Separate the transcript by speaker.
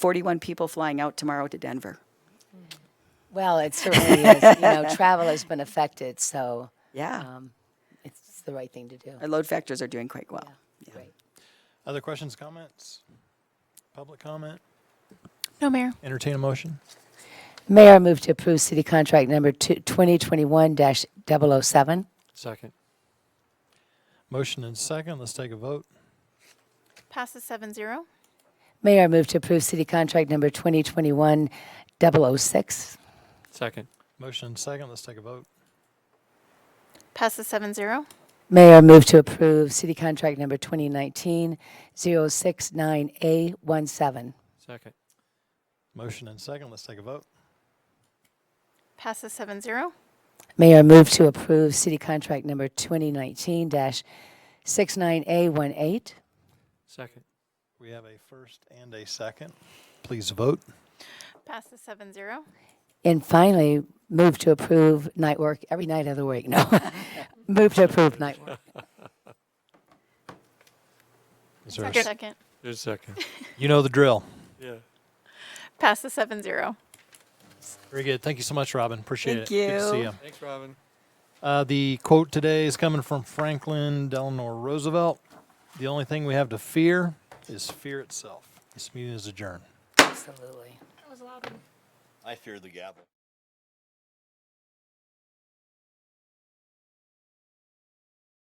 Speaker 1: 41 people flying out tomorrow to Denver.
Speaker 2: Well, it certainly is. You know, travel has been affected, so
Speaker 1: Yeah.
Speaker 2: um, it's the right thing to do.
Speaker 1: Our load factors are doing quite well.
Speaker 2: Great.
Speaker 3: Other questions, comments? Public comment?
Speaker 4: No, Mayor.
Speaker 3: Entertain a motion?
Speaker 2: Mayor, I move to approve city contract number two- 2021-007.
Speaker 5: Second.
Speaker 3: Motion and second. Let's take a vote.
Speaker 4: Passes seven zero.
Speaker 2: Mayor, I move to approve city contract number 2021-006.
Speaker 5: Second.
Speaker 3: Motion and second. Let's take a vote.
Speaker 4: Passes seven zero.
Speaker 2: Mayor, I move to approve city contract number 2019-069A17.
Speaker 5: Second.
Speaker 3: Motion and second. Let's take a vote.
Speaker 4: Passes seven zero.
Speaker 2: Mayor, I move to approve city contract number 2019-69A18.
Speaker 5: Second.
Speaker 3: We have a first and a second. Please vote.
Speaker 4: Passes seven zero.
Speaker 2: And finally, move to approve night work every night of the week. No, move to approve night work.
Speaker 3: Is there a s-
Speaker 4: Second.
Speaker 5: There's second.
Speaker 3: you know the drill.
Speaker 5: Yeah.
Speaker 4: Passes seven zero.
Speaker 3: Very good. Thank you so much, Robin. Appreciate
Speaker 1: Thank
Speaker 3: it. Good to see
Speaker 1: you.
Speaker 3: you.
Speaker 5: Thanks, Robin.
Speaker 3: Uh, the quote today is coming from Franklin Delano Roosevelt. The only thing we have to fear is fear itself. This meeting is adjourned.
Speaker 2: Absolutely.
Speaker 6: I fear the gavel.